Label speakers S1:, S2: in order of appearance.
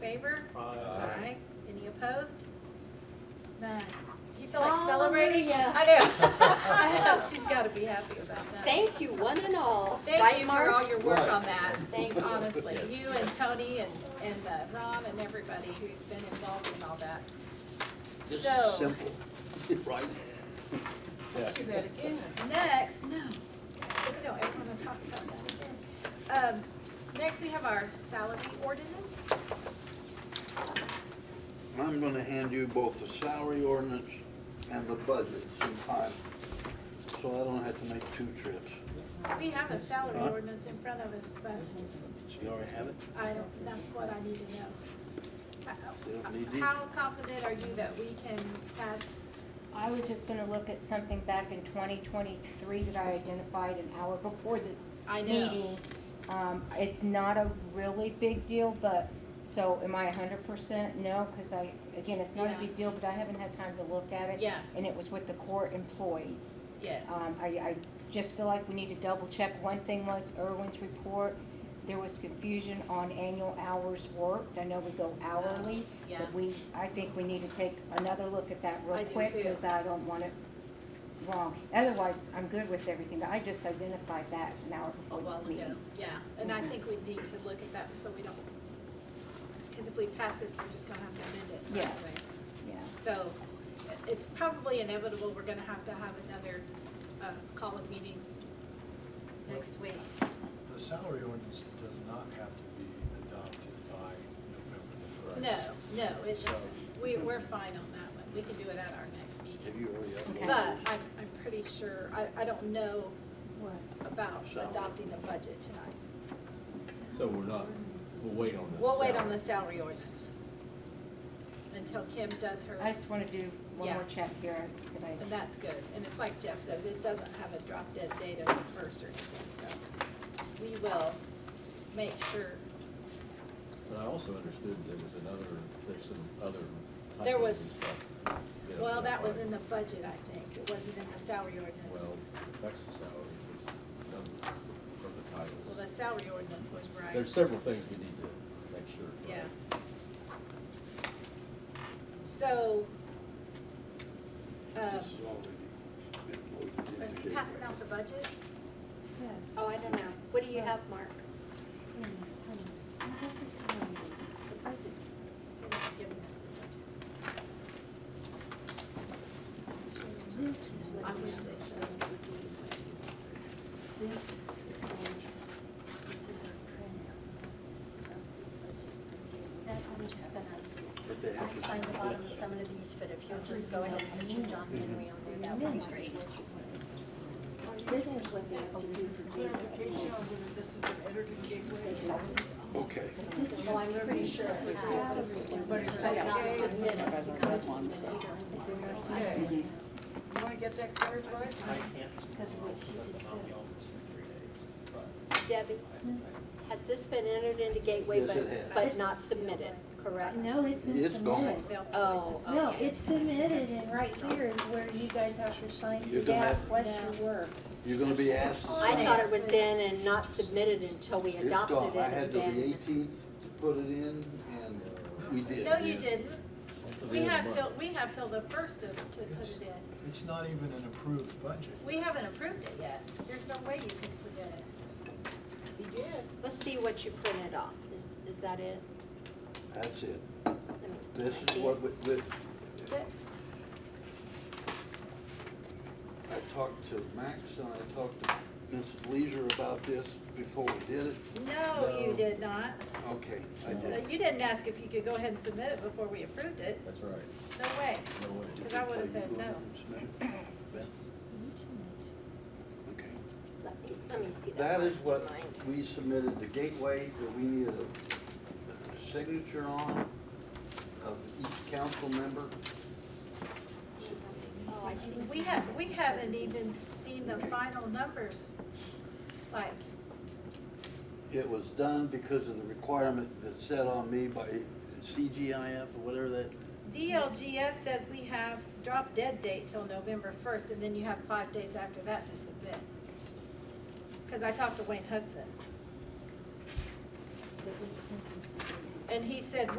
S1: favor?
S2: Uh,
S3: Aye.
S1: Any opposed? None. Do you feel like celebrating?
S4: Hallelujah.
S1: I know. I know, she's gotta be happy about that.
S4: Thank you, one and all.
S1: Thank
S4: Right,
S1: you
S4: Mark?
S1: for all your work
S3: Right.
S1: on that.
S4: Thank you.
S1: Honestly,
S3: Yes.
S1: you and Tony and, and uh, Ron and everybody who's been involved in all that.
S3: This
S1: So.
S3: is simple, right?
S5: Let's do that again.
S1: Next, no, we don't ever wanna talk about that again. Um, next we have our salary ordinance.
S3: I'm gonna hand you both the salary ordinance and the budget sometime, so I don't have to make two trips.
S1: We have a salary
S3: Huh?
S1: ordinance in front of us, but
S3: You already have it?
S1: I don't, that's what I need to know.
S3: You don't need
S1: How-
S3: these?
S1: How confident are you that we can pass,
S6: I was just gonna look at something back in twenty twenty-three that I identified an hour before this
S1: I know.
S6: meeting. Um, it's not a really big deal, but, so am I hundred percent? No, cause I, again, it's not a
S1: Yeah.
S6: big deal, but I haven't had time to look at it.
S1: Yeah.
S6: And it was with the court employees.
S1: yes,
S6: Um, I, I just feel like we need to double check. One thing was Irwin's report, there was confusion on annual hours worked. I know we go hourly,
S1: yeah.
S6: but we, I think we need to take another look at that
S1: I
S6: real
S1: do
S6: quick,
S1: too.
S6: cause I don't want it wrong. Otherwise, I'm good with everything, but I just identified that an hour
S1: a
S6: before
S1: while
S6: this
S1: ago,
S6: meeting.
S1: Oh, yeah, and I think we need to look at that so we don't, because if we pass this, we're just gonna have to amend it. right
S6: Yes.
S1: away.
S6: Yeah,
S1: So i- it's probably inevitable, we're gonna have to have another uh, call of meeting next week.
S7: The salary ordinance does not have to be adopted by November the first.
S1: No, no, it doesn't.
S7: So-
S1: We, we're fine on that one. We can do it at our next
S3: Have
S1: meeting.
S3: you already uploaded?
S1: But I'm, I'm pretty sure, I, I don't know
S4: What?
S1: about
S3: Salary.
S1: adopting the budget tonight.
S2: So we're not, we'll wait on this.
S1: We'll wait on the salary ordinance until Kim does her,
S6: I just wanna do one
S1: Yeah.
S6: more check here that I
S1: and that's good. And it's like Jeff says, it doesn't have a drop dead date of the first or anything, so we will make sure.
S2: But I also understood there was another, there's some other. type
S1: There
S2: of
S1: was-
S2: stuff, you know,
S1: Well, that was
S2: like-
S1: in the budget, I think. It wasn't in the salary ordinance.
S2: Well, that's the salary, it's done from the
S1: Well,
S2: title.
S1: the salary ordinance was right.
S2: There's several things we need to make sure.
S1: Yeah. So, uh,
S3: This
S4: uh,
S3: is already been
S1: is
S3: loaded
S1: he
S3: in.
S1: passing out the budget?
S4: Oh, I don't know. What do you have, Mark?
S1: Someone's giving us the
S5: This is
S1: budget.
S5: what
S1: I'm
S5: we
S1: with
S5: have.
S1: this.
S5: This is, this is a printout of the budget for
S4: That's, I'm just gonna,
S3: But they
S4: I'll
S3: have to-
S4: sign the bottom of some of these, but if you'll just go ahead and put your John Henry on there, that would be great.
S5: Gabe. This is what they have to do to do that.
S3: Okay,
S5: This is
S4: Well, I'm pretty sure
S5: the
S4: it's not
S5: salary
S4: submitted, but
S5: ordinance.
S4: it's not submitted.
S5: That's one, so.
S8: I can't.
S5: Because what she
S8: Because
S5: just
S8: I'm out
S5: said.
S8: the office in three days, but
S4: Debbie, has this been entered into Gateway
S3: Yes, it has.
S4: but, but not submitted, correct?
S5: No, it's been
S3: It's gone.
S5: submitted.
S1: They'll
S4: Oh,
S1: voice it.
S5: No,
S4: okay.
S5: it's submitted and right here is where you guys have to sign
S3: You're gonna
S5: that
S3: have-
S5: what you work.
S3: you're gonna be asked. to
S4: I
S3: sign.
S4: thought it was in and not submitted until we
S3: It's
S4: adopted
S3: gone.
S4: it.
S3: I had to
S4: and
S3: the
S4: then-
S3: eighteenth to put it in, and uh, we did.
S1: No, you didn't.
S2: Until the
S1: We
S2: end of
S1: have
S2: the
S1: till,
S2: month.
S1: we have till the first of, to put it in.
S7: It's not even an approved budget.
S1: We haven't approved it yet. There's no way you can submit it.
S4: Let's see what you printed off. Is, is that it?
S3: That's it.
S4: Let me- can
S3: This
S4: I
S3: is
S4: see
S3: what
S4: it?
S3: we, we-
S1: But
S3: I talked to Max and I talked to Mrs. Leisure about this before we did it.
S1: No, you
S2: No.
S1: did not.
S3: Okay, I
S1: Uh,
S3: did.
S1: You didn't ask if you could go ahead and submit it before we approved it.
S2: That's right.
S1: No way.
S2: No way.
S1: Because I would've said no.
S3: Ben? Okay.
S4: Let me, let me see that.
S3: That is
S4: line.
S3: what
S4: Mine.
S3: we submitted to Gateway, that we needed a signature on of each council member.
S4: Oh, I see.
S1: We have, we haven't even seen the final numbers, like,
S3: It was done because of the requirement that's set on me by CGIF or whatever that,
S1: DLGF says we have drop dead date till November first, and then you have five days after that to submit. Cause I talked to Wayne Hudson, and he said,